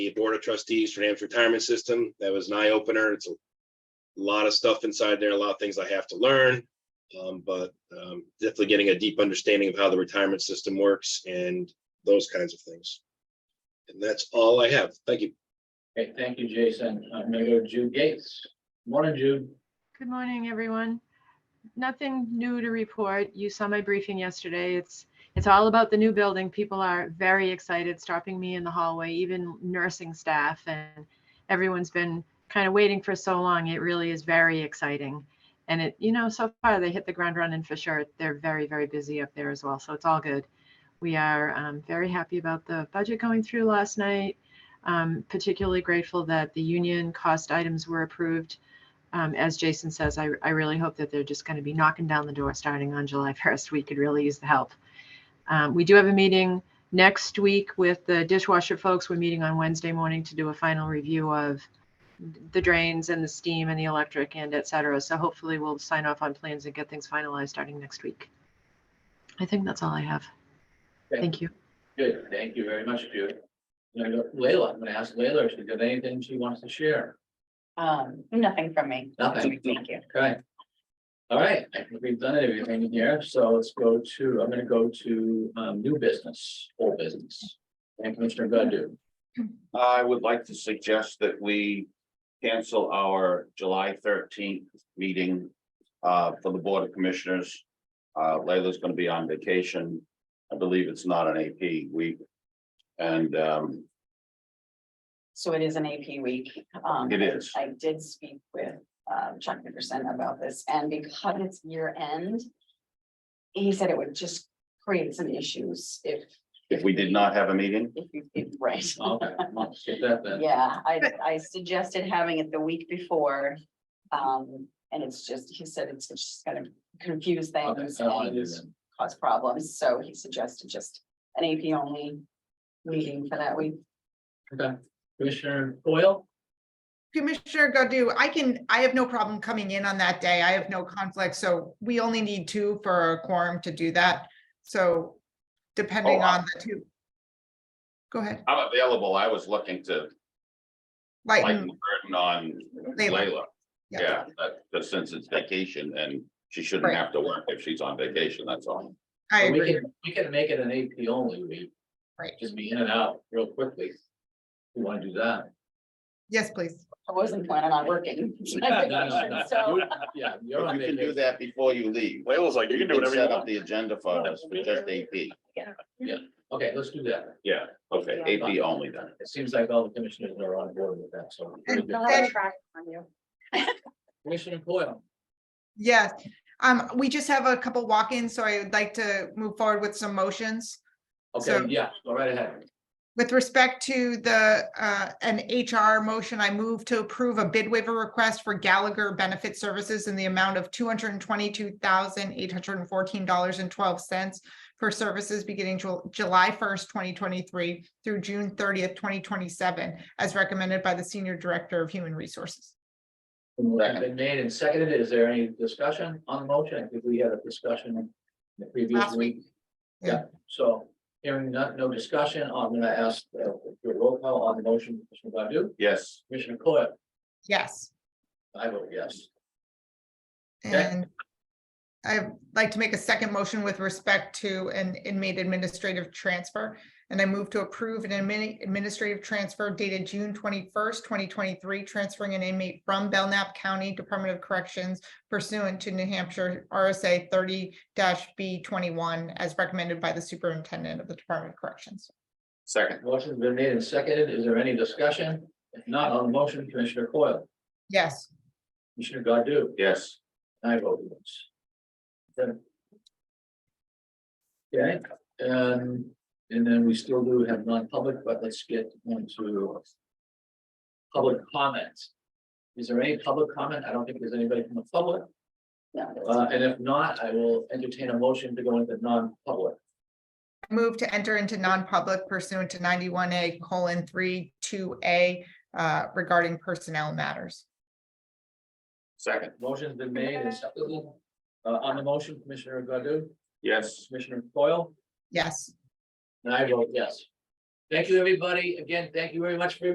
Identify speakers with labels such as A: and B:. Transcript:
A: the Board of Trustees for Hampshire Retirement System. That was an eye opener. It's a lot of stuff inside there, a lot of things I have to learn. Um, but, um, definitely getting a deep understanding of how the retirement system works and those kinds of things. And that's all I have. Thank you.
B: Okay, thank you, Jason. I'm gonna go to Jude Gates. Morning, Jude.
C: Good morning, everyone. Nothing new to report. You saw my briefing yesterday. It's, it's all about the new building. People are very excited, stopping me in the hallway, even nursing staff. And everyone's been kind of waiting for so long. It really is very exciting. And it, you know, so far they hit the ground running for sure. They're very, very busy up there as well. So it's all good. We are um, very happy about the budget going through last night. Um, Particularly grateful that the union cost items were approved um, as Jason says, I, I really hope that they're just going to be knocking down the door starting on July 1st. We could really use the help. Um, we do have a meeting next week with the dishwasher folks. We're meeting on Wednesday morning to do a final review of the drains and the steam and the electric and et cetera. So hopefully we'll sign off on plans and get things finalized starting next week. I think that's all I have.
B: Okay.
C: Thank you.
B: Good, thank you very much, Jude. I'm gonna go to Leila, I'm gonna ask Leila if she's got anything she wants to share.
D: Um, nothing from me.
B: Nothing.
D: Thank you.
B: Okay. All right, I think we've done everything here, so let's go to, I'm gonna go to um new business, old business. And Commissioner Godu.
E: I would like to suggest that we cancel our July thirteenth meeting uh, for the Board of Commissioners. Uh, Layla's gonna be on vacation. I believe it's not an AP week. And um,
D: So it is an AP week. Um,
E: It is.
D: I did speak with uh, Chuck Nickerson about this and because it's year end. He said it would just create some issues if,
E: if we did not have a meeting,
D: if you, if, right.
B: Okay, well, skip that then.
D: Yeah, I, I suggested having it the week before. Um, and it's just, he said it's just gonna confuse
B: Okay,
D: things
B: I don't wanna do
D: and
B: that.
D: cause problems, so he suggested just an AP only. Meeting for that week.
B: Okay, Commissioner Foil,
F: Commissioner Godu, I can, I have no problem coming in on that day. I have no conflict, so we only need two for a quorum to do that. So depending
E: Oh, I-
F: on the two. Go ahead,
E: I'm available. I was looking to lighten
F: lighten,
E: the burden on Layla.
F: Yeah.
E: Yeah, but- but since it's vacation and she shouldn't
F: Right.
E: have to work if she's on vacation, that's all.
F: I
B: we
F: agree.
B: can, we can make it an AP only week.
F: Right.
B: Just be in and out real quickly. We wanna do that.
F: Yes, please.
D: I wasn't planning on working.
B: No, no, no, no.
D: So,
B: You- Yeah, you're on
E: If You can do
B: vacation.
E: that before you leave.
G: Layla's like, you can do whatever you
E: Set up
G: want.
E: the agenda for us, for just AP.
B: Okay, let's do that.
E: Yeah, okay,
B: Yeah.
E: AP only then.
B: It seems like all the commissioners are on board with that, so.
F: And
D: I'll
F: then-
D: have a track on you.
B: Commissioner Coyle,
F: Yes, um, we just have a couple walk-ins, so I would like to move forward with some motions.
B: okay,
F: So-
B: yeah, go right ahead.
F: With respect to the, uh, an HR motion, I move to approve a bid waiver request for Gallagher Benefit Services in the amount of two hundred and twenty-two thousand, eight hundred and fourteen dollars and twelve cents for services beginning Jul- July first, twenty twenty-three through June thirtieth, twenty twenty-seven, as recommended by the Senior Director of Human Resources.
B: Motion Been made and seconded. Is there any discussion on the motion? I think we had a discussion in the previous
F: Last week.
B: week.
F: Yeah.
B: Yeah, so hearing none, no discussion, I'm gonna ask uh, your roll call on the motion, Commissioner Godu,
E: Yes,
B: Commissioner Coyle,
F: Yes.
B: I vote yes. Okay.
F: And I'd like to make a second motion with respect to an inmate administrative transfer. And I move to approve an admini- administrative transfer dated June twenty-first, twenty twenty-three, transferring an inmate from Belknap County Department of Corrections pursuant to New Hampshire RSA thirty B twenty-one as recommended by the superintendent of the Department of Corrections.
E: second,
B: Motion's been made and seconded. Is there any discussion? If not on the motion, Commissioner Coyle,
F: Yes.
B: Commissioner Godu,
E: yes,
B: I vote yes. Then- Okay, and, and then we still do have non-public, but let's get into public comments. Is there any public comment? I don't think there's anybody from the public,
D: No, that's-
B: uh, and if not, I will entertain a motion to go into non-public.
F: Move to enter into non-public pursuant to ninety-one A colon three two A uh, regarding personnel matters.
E: second,
B: Motion's been made and seconded. Uh, on the motion, Commissioner Godu,
E: yes.
B: Commissioner Foil,
F: Yes.
B: and I vote yes. Thank you, everybody. Again, thank you very much for your